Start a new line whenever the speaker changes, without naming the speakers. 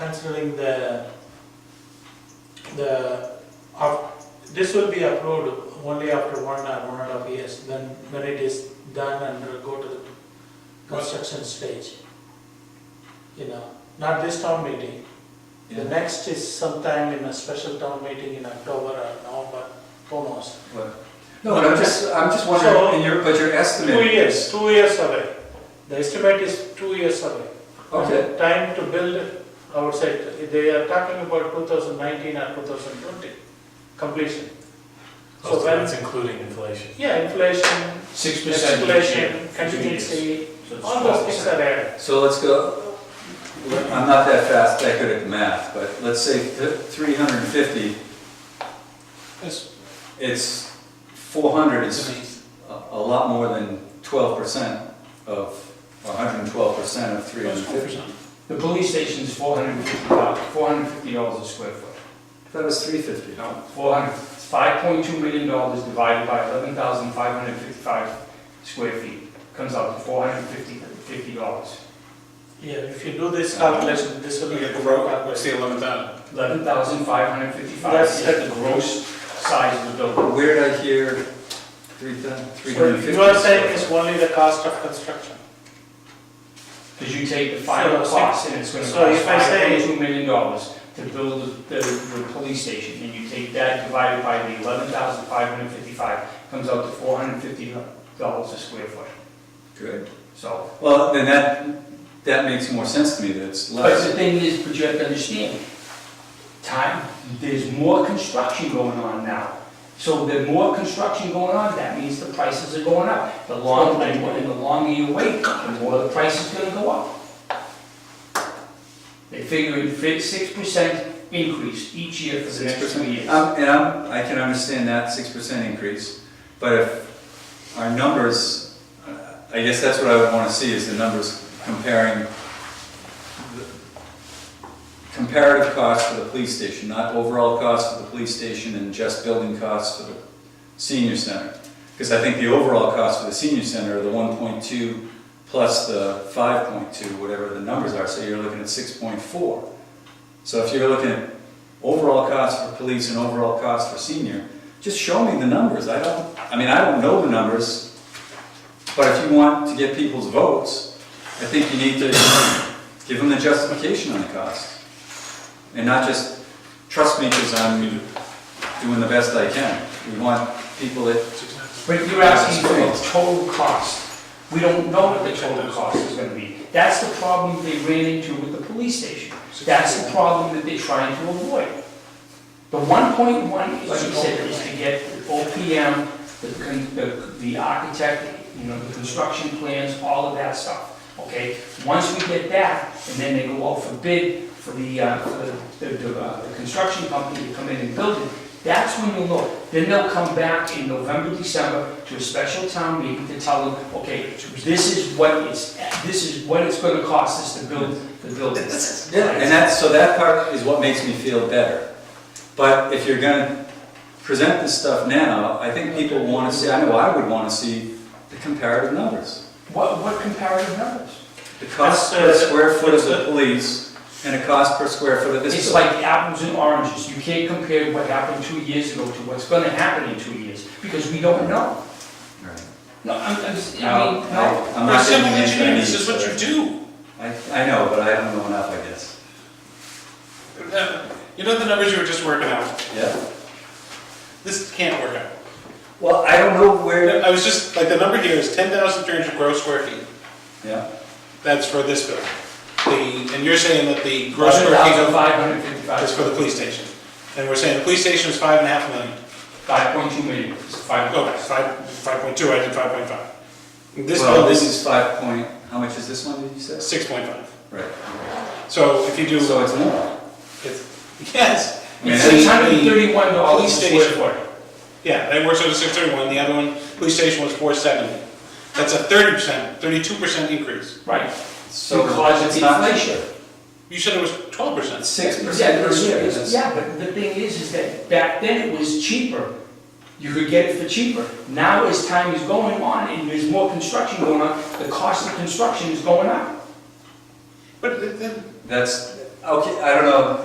considering the, the, of- this will be approved only after one or one and a half years, when, when it is done and will go to the construction stage. You know, not this town meeting. The
Yeah.
next is sometime in a special town meeting in October or November, almost.
What? No, but I'm just, I'm just wondering, and your, but your
Two
estimate,
years, two years away. The estimate is two years away.
okay,
Time to build, I would say, they are talking about 2019 or 2020 completion. So
So
when-
that's including inflation.
Yeah, inflation,
Six percent.
inflation, contingency, all those things are there.
so let's go, I'm not that fast, that good at math, but let's say three hundred and fifty, it's four hundred, it's a a lot more than twelve percent of, hundred and twelve percent of three hundred and fifty.
The police station's four hundred and fifty dollars, four hundred and fifty dollars a square foot.
That was three fifty.
No, four hundred, five point two million dollars divided by eleven thousand five hundred fifty-five square feet comes out to four hundred fifty, fifty dollars.
Yeah, if you do this calculation, this will be a good
What's
calculation.
the eleventh item?
Eleven thousand five hundred fifty-five
That's-
is the gross size of the building.
Where did I hear three three
So
hundred and fifty?
you are saying it's only the cost of construction.
Because you take the final
So-
cost and it's gonna
so
cost
if I
five
say-
point two million dollars to build the, the police station, and you take that divided by the eleven thousand five hundred fifty-five, comes out to four hundred fifty dollars a square foot,
Good.
so.
Well, then that, that makes more sense to me, that it's
But the
less.
thing is, but you have to understand, time, there's more construction going on now. So the more construction going on, that means the prices are going up. The longer, and the longer you wait, the more the price is gonna go up. They figure in six percent increase each year for the next two
6%.
years.
Um, And I'm, I can understand that six percent increase, but if our numbers, uh, I guess that's what I would wanna see, is the numbers comparing the comparative cost for the police station, not overall cost for the police station and just building costs for the senior center. Because I think the overall cost for the senior center are the one point two plus the five point two, whatever the numbers are, so you're looking at six point four. So if you're looking at overall cost for police and overall cost for senior, just show me the numbers, I don't, I mean, I don't know the numbers, but if you want to get people's votes, I think you need to give them the justification on the cost. And not just, trust me, because I'm doing the best I can, we want people that,
But you're asking for the total cost. We don't know what the total cost is gonna be. That's the problem they ran into with the police station. That's the problem that they're trying to avoid. The one point one, like you said, is to get OPM, the con- the, the architect, you know, the construction plans, all of that stuff, okay? Once we get that, and then they go out for bid for the, uh, for the, the, uh, the construction company to come in and build it, that's when you'll know. Then they'll come back in November, December to a special town meeting to tell them, okay, this is what it's, this is what it's gonna cost us to build the building.
yeah, and that's, so that part is what makes me feel better. But if you're gonna present this stuff now, I think people wanna see, I know I would wanna see the comparative numbers.
What, what comparative numbers?
The cost per
That's, uh,
square foot of the
that's, uh,
police and a cost per square foot of this.
It's
building.
like apples and oranges. You can't compare what happened two years ago to what's gonna happen in two years, because we don't know.
Right.
No, I'm, I'm, just-
No,
I mean, no.
I- I'm
We're
not getting
civil
the answer I
engineers,
need,
this is what you
but-
do.
I, I know, but I don't know enough, I guess.
You know the numbers you were just working out?
Yeah.
This can't work out.
Well, I don't know where.
I was just, like, the number here is ten thousand three hundred gross square feet.
Yeah.
That's for this building. The, and you're saying that the gross
Eleven
square feet
thousand
of-
five hundred fifty-five.
is for the police station. And we're saying the police station is five and a half million.
Five point two million, it's five.
Okay, five, five point two, I did five point five. This
Well, this
building
is five point, how much is this one, did you
is
say?
six point five.
Right.
So if you do,
So it's more.
it's, yes.
I mean,
It's
Six hundred and
the-
thirty-one dollars
police
a square
station.
foot.
Yeah, that works out to six thirty-one, the other one, police station was four seventy. That's a thirty percent, thirty-two percent increase.
Right.
So
Because it's
it's not-
inflation.
You said it was twelve percent.
Six
Yeah,
percent per
it's-
year.
it's-
That's-
Yeah, but the thing is, is that back then it was cheaper. You could get it for cheaper. Now, as time is going on and there's more construction going on, the cost of construction is going up.
But then,
That's, Okay, I don't know,